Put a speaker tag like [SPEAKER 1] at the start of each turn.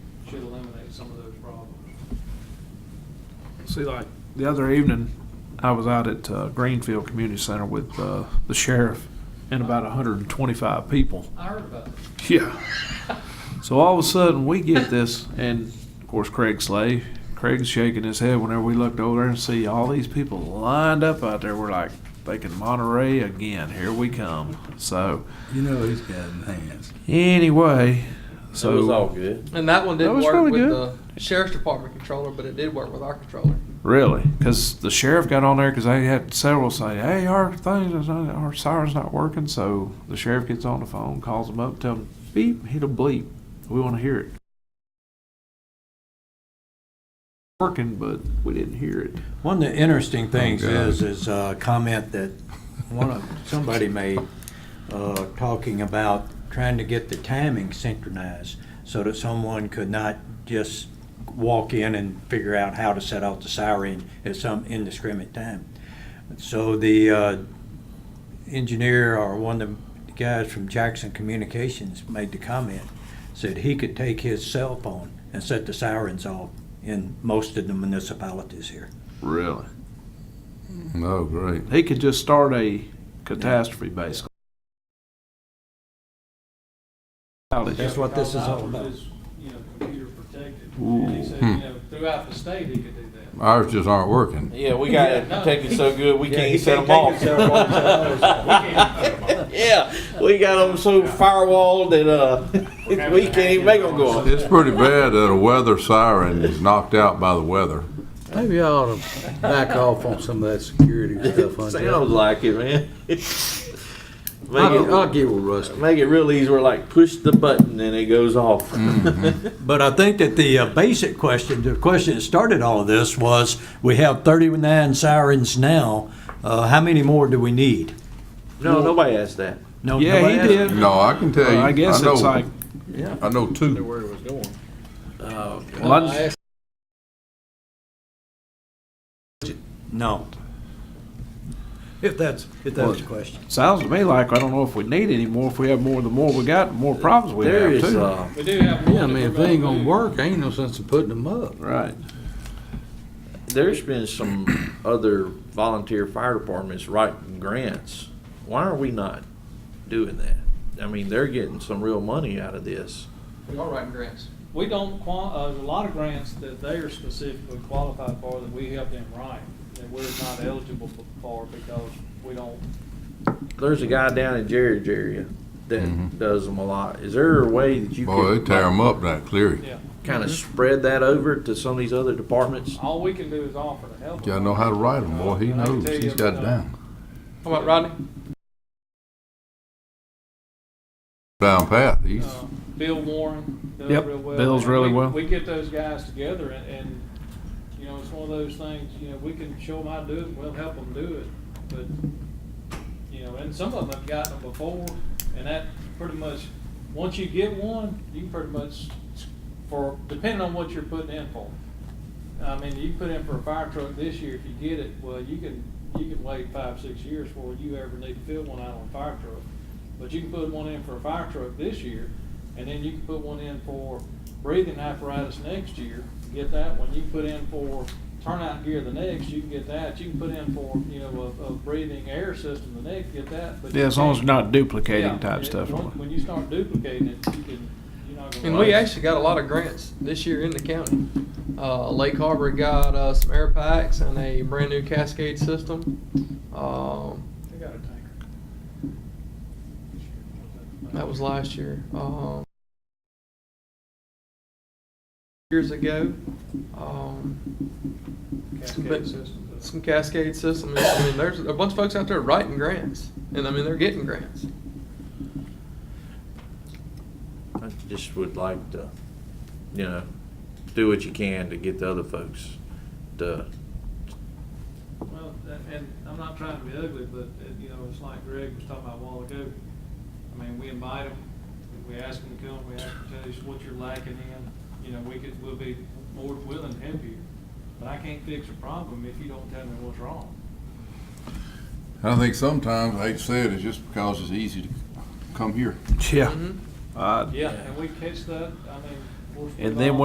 [SPEAKER 1] should eliminate some of those problems.
[SPEAKER 2] See, like the other evening, I was out at uh, Greenfield Community Center with uh, the sheriff and about 125 people.
[SPEAKER 1] I heard about it.
[SPEAKER 2] Yeah. So all of a sudden, we get this, and of course, Craig Slay, Craig's shaking his head whenever we looked over there and see all these people lined up out there. We're like, thinking Monterey again. Here we come. So
[SPEAKER 3] You know he's got hands.
[SPEAKER 2] anyway, so
[SPEAKER 4] So it was all good.
[SPEAKER 5] And that one
[SPEAKER 2] That
[SPEAKER 5] didn't
[SPEAKER 2] was
[SPEAKER 5] work
[SPEAKER 2] really
[SPEAKER 5] with
[SPEAKER 2] good.
[SPEAKER 5] the sheriff's department controller, but it did work with our controller.
[SPEAKER 2] Really? Because the sheriff got on there because they had several say, "Hey, our thing is not, our siren's not working." So the sheriff gets on the phone, calls them up, tell them beep, hit a bleep. We want to hear it. Working, but we didn't hear it.
[SPEAKER 3] One of the interesting things
[SPEAKER 2] Oh, God.
[SPEAKER 3] is, is a comment that one of, somebody made, uh, talking about trying to get the timing synchronized so that someone could not just walk in and figure out how to set off the siren at some indiscriminate time. So the, uh, engineer or one of the guys from Jackson Communications made the comment, said he could take his cell phone and set the sirens off in most of the municipalities here.
[SPEAKER 2] Really?
[SPEAKER 4] Oh, great.
[SPEAKER 2] He could just start a catastrophe, basically.
[SPEAKER 3] That's what this is all about.
[SPEAKER 1] Ours is, You know, computer protected. And he
[SPEAKER 6] hmm.
[SPEAKER 1] said, you know, throughout the state, he could do that.
[SPEAKER 7] Ours just aren't working.
[SPEAKER 4] Yeah, we got it protected so good we can't set them off. Yeah, we got them so firewalled that uh, we can't even make them go off.
[SPEAKER 7] It's pretty bad that a weather siren is knocked out by the weather.
[SPEAKER 6] Maybe I ought to back off on some of that security stuff on that.
[SPEAKER 4] Sounds like it, man. make
[SPEAKER 6] I'll, I'll
[SPEAKER 4] it
[SPEAKER 6] give with Rusty.
[SPEAKER 4] make it real easy. We're like push the button and it goes off.
[SPEAKER 3] But I think that the uh, basic question, the question that started all of this was, we have 39 sirens now, Uh, how many more do we need?
[SPEAKER 4] No, nobody asked that.
[SPEAKER 3] No,
[SPEAKER 2] Yeah,
[SPEAKER 3] nobody
[SPEAKER 2] he
[SPEAKER 3] asked.
[SPEAKER 2] did.
[SPEAKER 7] No, I can tell you.
[SPEAKER 2] I guess
[SPEAKER 7] know-
[SPEAKER 2] it's like
[SPEAKER 7] I know two.
[SPEAKER 5] Where it was going.
[SPEAKER 2] well, I-
[SPEAKER 3] No. If that's, if that's the question.
[SPEAKER 2] sounds to me like I don't know if we need any more. If we have more, the more we got, the more problems we
[SPEAKER 4] There
[SPEAKER 2] have
[SPEAKER 4] is.
[SPEAKER 2] too.
[SPEAKER 4] Uh,
[SPEAKER 1] We do have.
[SPEAKER 6] Yeah, I
[SPEAKER 1] one
[SPEAKER 6] mean, if
[SPEAKER 1] that we're
[SPEAKER 6] they ain't
[SPEAKER 1] about to
[SPEAKER 6] gonna
[SPEAKER 1] do.
[SPEAKER 6] work, ain't no sense in putting them up.
[SPEAKER 2] Right.
[SPEAKER 4] there's been some other volunteer fire departments writing grants. Why are we not doing that? I mean, they're getting some real money out of this.
[SPEAKER 5] We are writing grants.
[SPEAKER 1] We don't, qua- uh, a lot of grants that they are specifically qualified for that we help them write, that we're not eligible for because we don't,
[SPEAKER 4] There's a guy down in Jerry's area that
[SPEAKER 7] Mhm.
[SPEAKER 4] does them a lot. Is there a way that you
[SPEAKER 7] Boy, they
[SPEAKER 4] could
[SPEAKER 7] tear them up that cleary.
[SPEAKER 1] yeah.
[SPEAKER 4] kind of spread that over to some of these other departments?
[SPEAKER 1] All we can do is offer to help.
[SPEAKER 7] Yeah, I know how to write them, boy. He
[SPEAKER 1] I can
[SPEAKER 7] knows.
[SPEAKER 1] tell
[SPEAKER 7] He's
[SPEAKER 1] you,
[SPEAKER 7] got
[SPEAKER 1] uh,
[SPEAKER 7] it down.
[SPEAKER 5] How about Rodney?
[SPEAKER 7] Down path. He's,
[SPEAKER 1] Uh, Bill Warren does
[SPEAKER 2] Yep,
[SPEAKER 1] real well.
[SPEAKER 2] Bill's really
[SPEAKER 1] We-
[SPEAKER 2] well.
[SPEAKER 1] We get those guys together and, and, you know, it's one of those things, you know, we can show them how to do it, and we'll help them do it, but, you know, and some of them have gotten them before, and that pretty much, once you get one, you pretty much, for, depending on what you're putting in for. I mean, you put in for a fire truck this year, if you get it, well, you can, you can wait five, six years before you ever need to fill one out on a fire truck. But you can put one in for a fire truck this year, and then you can put one in for breathing apparatus next year, get that one. You can put in for turnout gear the next, you can get that. You can put in for, you know, a, a breathing air system the next, get that. but
[SPEAKER 2] Yeah,
[SPEAKER 1] you
[SPEAKER 2] as long as
[SPEAKER 1] can't-
[SPEAKER 2] you're not
[SPEAKER 1] Yeah,
[SPEAKER 2] duplicating type
[SPEAKER 1] it-
[SPEAKER 2] stuff.
[SPEAKER 1] When
[SPEAKER 2] on
[SPEAKER 1] when
[SPEAKER 2] it.
[SPEAKER 1] you start duplicating it, you can, you're not gonna.
[SPEAKER 5] And we
[SPEAKER 1] last.
[SPEAKER 5] actually got a lot of grants this year in the county. Uh, Lake Harbor got uh, some air packs and a brand new Cascade system. Um,
[SPEAKER 1] They got a tanker.
[SPEAKER 5] that was last year. Um, years ago, um,
[SPEAKER 1] Cascade
[SPEAKER 5] but-
[SPEAKER 1] system.
[SPEAKER 5] some Cascade system. I mean, there's a bunch of folks out there writing grants, and I mean they're getting grants.
[SPEAKER 4] I just would like to, you know, do what you can to get the other folks to,
[SPEAKER 1] Well, a- and I'm not trying to be ugly, but, uh, you know, it's like Greg was talking about a while ago. I mean, we invite them, we ask them to come, we ask them to tell us what you're lacking in. You know, we could, we'll be more than willing to help you. But I can't fix a problem if you don't tell me what's wrong.
[SPEAKER 7] I think sometimes, I hate to say it, it's just because it's easy to come here.
[SPEAKER 2] Yeah. Uh,
[SPEAKER 5] Mm-hmm.
[SPEAKER 1] Yeah, and we catch that, I mean. of course,
[SPEAKER 2] And
[SPEAKER 1] with
[SPEAKER 2] then
[SPEAKER 1] all-